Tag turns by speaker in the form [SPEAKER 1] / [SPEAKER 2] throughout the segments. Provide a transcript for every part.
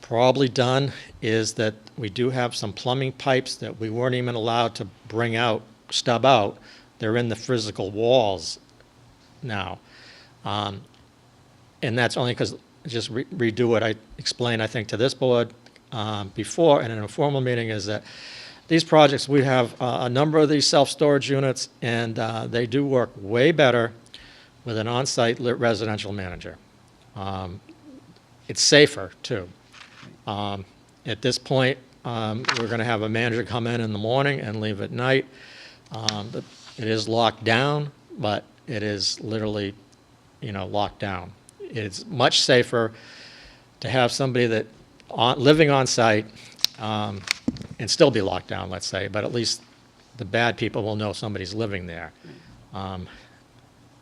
[SPEAKER 1] probably done is that we do have some plumbing pipes that we weren't even allowed to bring out, stub out. They're in the physical walls now. Um, And that's only because, just re- redo what I explained, I think, to this board um, before in an informal meeting, is that these projects, we have uh, a number of these self-storage units, and uh, they do work way better with an on-site lit residential manager. Um, It's safer, too. Um, At this point, um, we're going to have a manager come in in the morning and leave at night. Um, but It is locked down, but it is literally, you know, locked down. It's much safer to have somebody that, on- living on-site um, and still be locked down, let's say, but at least the bad people will know somebody's living there. Um,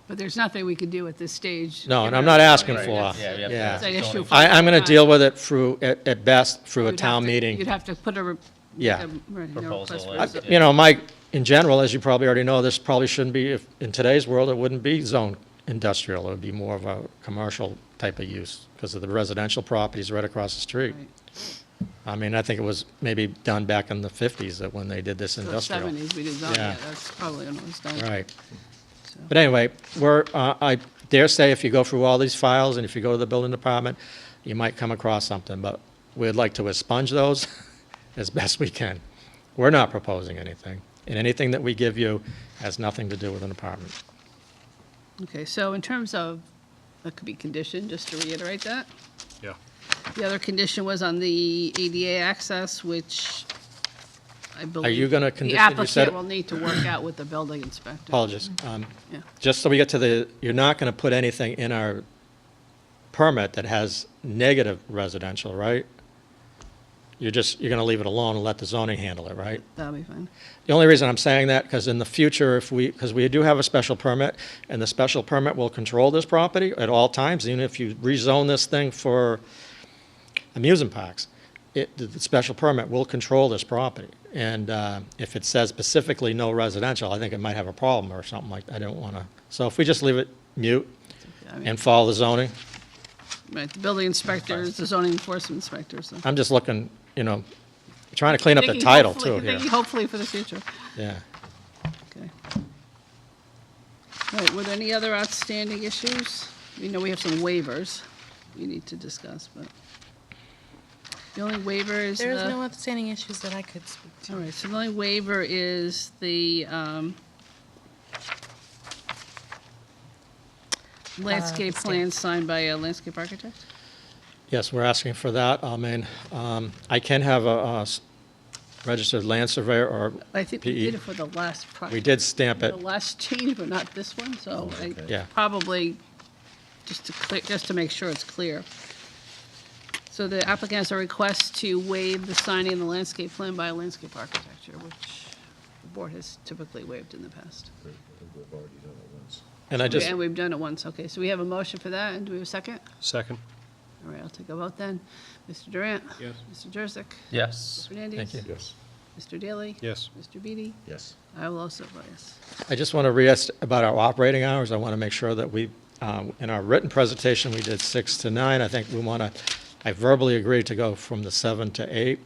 [SPEAKER 2] But there's nothing we can do at this stage.
[SPEAKER 1] No, and I'm not asking
[SPEAKER 2] Right.
[SPEAKER 1] for,
[SPEAKER 2] That's-
[SPEAKER 3] Yeah, we have to
[SPEAKER 1] yeah.
[SPEAKER 2] It's an issue for.
[SPEAKER 1] I, I'm going to deal with it through, at at best, through a
[SPEAKER 2] You'd have
[SPEAKER 1] town
[SPEAKER 2] to-
[SPEAKER 1] meeting.
[SPEAKER 2] You'd have to put a. re-
[SPEAKER 1] Yeah.
[SPEAKER 2] a- right, no
[SPEAKER 3] Proposal
[SPEAKER 2] request for
[SPEAKER 3] in.
[SPEAKER 1] I-
[SPEAKER 2] rezon-
[SPEAKER 1] You know, Mike, in general, as you probably already know, this probably shouldn't be, if- in today's world, it wouldn't be zone industrial. It would be more of a commercial type of use because of the residential properties right across the street.
[SPEAKER 2] right.
[SPEAKER 1] I mean, I think it was maybe done back in the 50s that when they did this
[SPEAKER 2] So it's
[SPEAKER 1] industrial.
[SPEAKER 2] Seventies, we did zone,
[SPEAKER 1] Yeah.
[SPEAKER 2] yeah, that's probably when it was done.
[SPEAKER 1] Right.
[SPEAKER 2] So-
[SPEAKER 1] But anyway, we're, uh, I dare say if you go through all these files and if you go to the building department, you might come across something, but we'd like to expunge those as best we can. We're not proposing anything, and anything that we give you has nothing to do with an apartment.
[SPEAKER 2] Okay, so in terms of, that could be conditioned, just to reiterate that.
[SPEAKER 4] Yeah.
[SPEAKER 2] The other condition was on the ADA access, which I believe.
[SPEAKER 1] you gonna
[SPEAKER 2] The
[SPEAKER 1] condition- you said-
[SPEAKER 2] applicant will need to work out with the building inspector.
[SPEAKER 1] Apologies. Um,
[SPEAKER 2] Yeah.
[SPEAKER 1] Just so we get to the, you're not going to put anything in our permit that has negative residential, right? You're just, you're going to leave it alone and let the zoning handle it, right?
[SPEAKER 2] That'll be fine.
[SPEAKER 1] The only reason I'm saying that, because in the future, if we, because we do have a special permit, and the special permit will control this property at all times, even if you rezone this thing for amusement parks, it, the the special permit will control this property. And uh, if it says specifically no residential, I think it might have a problem or something like, I don't want to. So if we just leave it mute
[SPEAKER 2] I mean,
[SPEAKER 1] and follow the zoning,
[SPEAKER 2] Right, the building inspector is the zoning enforcement inspector, so.
[SPEAKER 1] I'm just looking, you know, trying to clean up the
[SPEAKER 2] Thinking
[SPEAKER 1] title
[SPEAKER 2] hopefully-
[SPEAKER 1] too here.
[SPEAKER 2] thinking Hopefully for the future.
[SPEAKER 1] Yeah.
[SPEAKER 2] Okay. All right, were there any other outstanding issues? We know we have some waivers we need to discuss, but the only waiver is the...
[SPEAKER 5] There is no outstanding issues that I could speak to.
[SPEAKER 2] All right, so the only waiver is the um, landscape
[SPEAKER 5] stamp.
[SPEAKER 2] plan signed by a landscape architect?
[SPEAKER 1] Yes, we're asking for that. I mean, um, I can have a uh, s- registered land surveyor, or
[SPEAKER 2] I think we
[SPEAKER 1] PE.
[SPEAKER 2] did it for the last project.
[SPEAKER 1] E. we did stamp it.
[SPEAKER 2] The last change, but not this one, so I
[SPEAKER 1] Yeah.
[SPEAKER 2] probably, just to clear, just to make sure it's clear. So the applicant has a request to waive the signing of the landscape plan by a landscape architecture, which the board has typically waived in the past.
[SPEAKER 1] And I just,
[SPEAKER 2] And we've done it once, okay, so we have a motion for that, and do we have a second?
[SPEAKER 4] Second?
[SPEAKER 2] All right, I'll take a vote then. Mr. Durant?
[SPEAKER 4] Yes.
[SPEAKER 2] Mr. Jurassic?
[SPEAKER 3] Yes.
[SPEAKER 2] Fernandez?
[SPEAKER 1] Thank
[SPEAKER 3] Yes.
[SPEAKER 2] Mr. Daly?
[SPEAKER 4] Yes.
[SPEAKER 2] Mr. Beatty?
[SPEAKER 3] Yes.
[SPEAKER 2] I will also vote yes.
[SPEAKER 1] I just want to re-ask about our operating hours. I want to make sure that we, um, in our written presentation, we did six to nine. I think we want to, I verbally agreed to go from the seven to eight,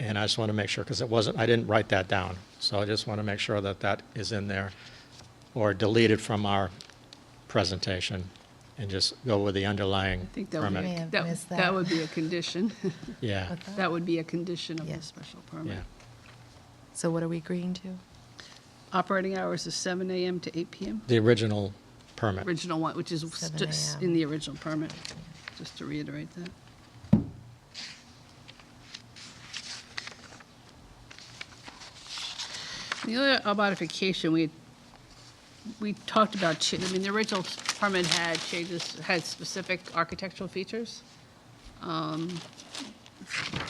[SPEAKER 1] and I just want to make sure, because it wasn't, I didn't write that down. So I just want to make sure that that is in there, or deleted from our presentation, and just go with the underlying
[SPEAKER 2] I think that would
[SPEAKER 1] permit.
[SPEAKER 2] be,
[SPEAKER 5] May have
[SPEAKER 2] that
[SPEAKER 5] missed
[SPEAKER 2] that
[SPEAKER 5] that.
[SPEAKER 2] would be a condition.
[SPEAKER 1] Yeah,
[SPEAKER 2] That would be a condition of
[SPEAKER 5] Yeah.
[SPEAKER 2] the special permit.
[SPEAKER 1] yeah.
[SPEAKER 5] So what are we agreeing to?
[SPEAKER 2] Operating hours is seven AM to eight PM,
[SPEAKER 1] The original permit.
[SPEAKER 2] original one, which is s-
[SPEAKER 5] 7
[SPEAKER 2] just
[SPEAKER 5] a.m..
[SPEAKER 2] in the original permit, just to reiterate that. The other uh, modification, we, we talked about, cha- I mean, the original permit had changes, had specific architectural features. Um,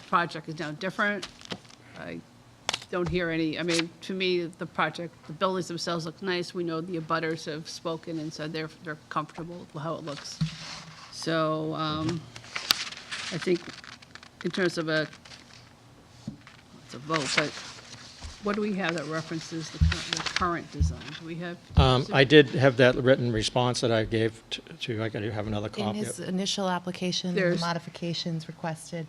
[SPEAKER 2] Project is now different. I don't hear any, I mean, to me, the project, the buildings themselves look nice. We know the abutters have spoken and said they're, they're comfortable with how it looks. So um, I think in terms of a, it's a vote, but what do we have that references the current, the current design? Do we have?
[SPEAKER 1] Um, I did have that written response that I gave t- to, I gotta have another
[SPEAKER 5] In
[SPEAKER 1] copy.
[SPEAKER 5] his initial application, the
[SPEAKER 2] There's-
[SPEAKER 5] modifications requested